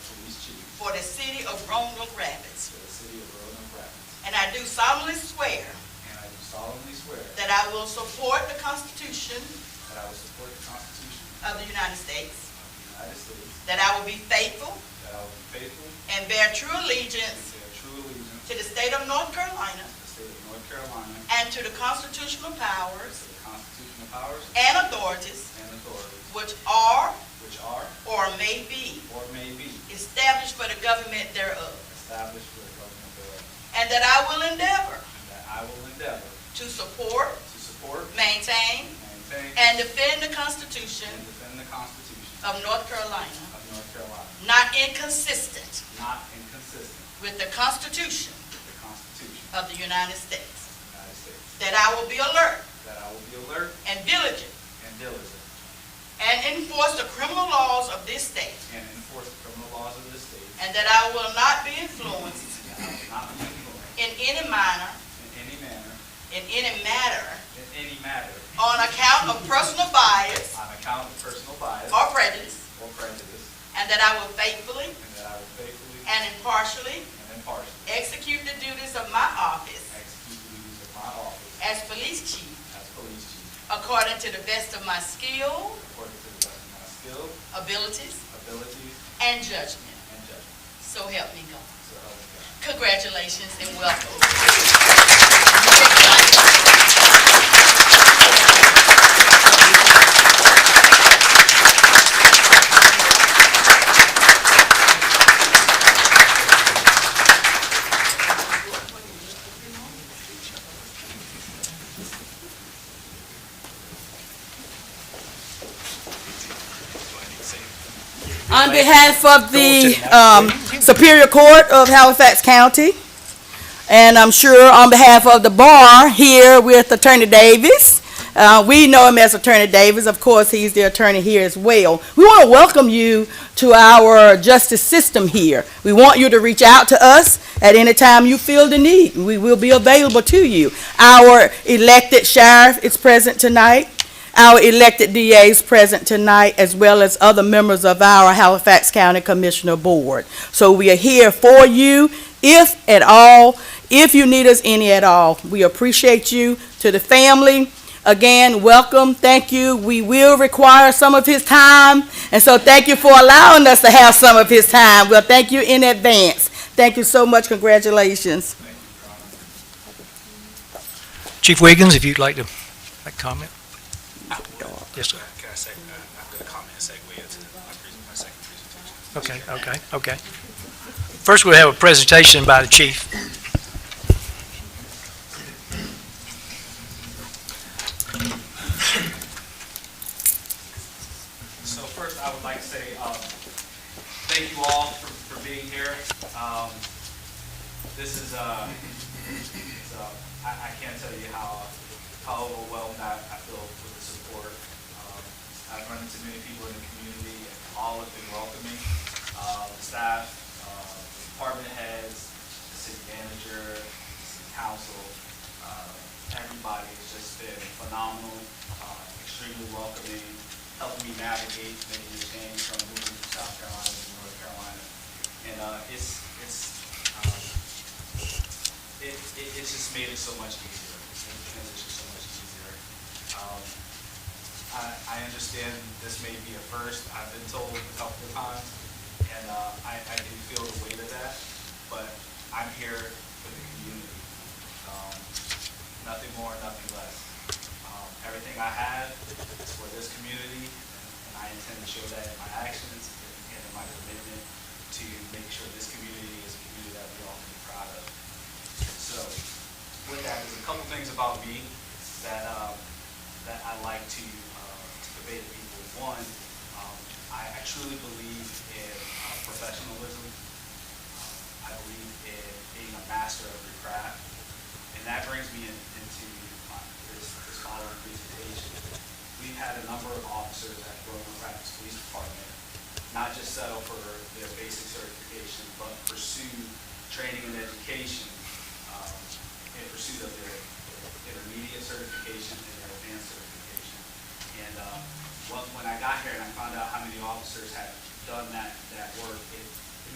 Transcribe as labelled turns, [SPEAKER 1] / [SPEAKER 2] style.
[SPEAKER 1] for the city of Roanoke Rapids.
[SPEAKER 2] for the city of Roanoke Rapids.
[SPEAKER 1] And I do solemnly swear
[SPEAKER 2] And I do solemnly swear
[SPEAKER 1] that I will support the Constitution
[SPEAKER 2] that I will support the Constitution
[SPEAKER 1] of the United States,
[SPEAKER 2] of the United States,
[SPEAKER 1] that I will be faithful
[SPEAKER 2] that I will be faithful
[SPEAKER 1] and bear true
[SPEAKER 2] and
[SPEAKER 1] allegiance
[SPEAKER 2] bear true allegiance
[SPEAKER 1] to the state of North Carolina
[SPEAKER 2] to the state of North Carolina,
[SPEAKER 1] and to the constitutional
[SPEAKER 2] to
[SPEAKER 1] powers
[SPEAKER 2] the constitutional powers
[SPEAKER 1] and authorities
[SPEAKER 2] and authorities
[SPEAKER 1] which are
[SPEAKER 2] which are
[SPEAKER 1] or may be
[SPEAKER 2] or may be
[SPEAKER 1] established for the government thereof,
[SPEAKER 2] established for the government thereof,
[SPEAKER 1] and that I will endeavor
[SPEAKER 2] and that I will endeavor
[SPEAKER 1] to support,
[SPEAKER 2] to support,
[SPEAKER 1] maintain,
[SPEAKER 2] maintain,
[SPEAKER 1] and defend the Constitution
[SPEAKER 2] and defend the Constitution
[SPEAKER 1] of North Carolina,
[SPEAKER 2] of North Carolina,
[SPEAKER 1] not inconsistent
[SPEAKER 2] not inconsistent
[SPEAKER 1] with the Constitution
[SPEAKER 2] with the Constitution
[SPEAKER 1] of the United
[SPEAKER 2] of
[SPEAKER 1] States,
[SPEAKER 2] the United States,
[SPEAKER 1] that I will be alert
[SPEAKER 2] that I will be alert
[SPEAKER 1] and diligent
[SPEAKER 2] and diligent
[SPEAKER 1] and enforce the criminal laws of this state,
[SPEAKER 2] and enforce the criminal laws of this state,
[SPEAKER 1] and that I will not be influenced
[SPEAKER 2] and I will not be influenced
[SPEAKER 1] in any manner,
[SPEAKER 2] in any manner,
[SPEAKER 1] in any matter,
[SPEAKER 2] in any matter,
[SPEAKER 1] on account of personal bias
[SPEAKER 2] on account of personal bias
[SPEAKER 1] or prejudice,
[SPEAKER 2] or prejudice,
[SPEAKER 1] and that I will
[SPEAKER 2] and
[SPEAKER 1] faithfully
[SPEAKER 2] that I will faithfully
[SPEAKER 1] and impartially
[SPEAKER 2] and impartially
[SPEAKER 1] execute the duties of my office
[SPEAKER 2] execute the duties of my office
[SPEAKER 1] as police chief
[SPEAKER 2] as police chief
[SPEAKER 1] according to the best of my skill,
[SPEAKER 2] according to the best of my skill,
[SPEAKER 1] abilities,
[SPEAKER 2] abilities,
[SPEAKER 1] and judgment.
[SPEAKER 2] and judgment.
[SPEAKER 1] So help me God.
[SPEAKER 2] So help me God.
[SPEAKER 1] Congratulations and welcome.
[SPEAKER 3] On behalf of the um, Superior Court of Halifax County, and I'm sure on behalf of the bar here with Attorney Davis, uh, we know him as Attorney Davis, of course, he's the attorney here as well. We want to welcome you to our justice system here. We want you to reach out to us at any time you feel the need. We will be available to you. Our elected sheriff is present tonight. Our elected DAs present tonight, as well as other members of our Halifax County Commissioner Board. So we are here for you, if at all, if you need us any at all. We appreciate you. To the family, again, welcome, thank you. We will require some of his time, and so thank you for allowing us to have some of his time. Well, thank you in advance. Thank you so much, congratulations.
[SPEAKER 2] Thank you, Your Honor.
[SPEAKER 4] Chief Wiggins, if you'd like to make comment? Yes, sir.
[SPEAKER 5] Can I say, uh, I've got a comment, and segue into my pres- my second presentation.
[SPEAKER 4] Okay, okay, okay. First, we'll have a presentation by the chief.
[SPEAKER 5] So first, I would like to say, um, thank you all for, for being here. Um, this is, uh, it's, uh, I, I can't tell you how, how overwhelmed I, I feel with the support. Um, I've run into many people in the community, and all have been welcoming. Uh, the staff, uh, department heads, the city manager, the city council, uh, everybody has just been phenomenal, uh, extremely welcoming, helped me navigate many of the things from moving from South Carolina to North Carolina. And, uh, it's, it's, um, it, it, it's just made it so much easier, it's made the transition so much easier. Um, I, I understand this may be a first, I've been told a couple of times, and, uh, I, I do feel the weight of that, but I'm here for the community. Um, nothing more, nothing less. Um, everything I have is for this community, and I intend to show that in my actions and in my commitment to make sure this community is a community that we all can be proud of. So, with that, there's a couple things about me that, um, that I like to, uh, to convey to people. One, um, I, I truly believe in uh, professionalism. Um, I believe in being a master of your craft. And that brings me in, into my, this, this following presentation. We've had a number of officers at Roanoke Rapids Police Department not just settle for their basic certification, but pursue training and education um, in pursuit of their their intermediate certification and their advanced certification. And um, well, when I got here and I found out how many officers had done that, that work, it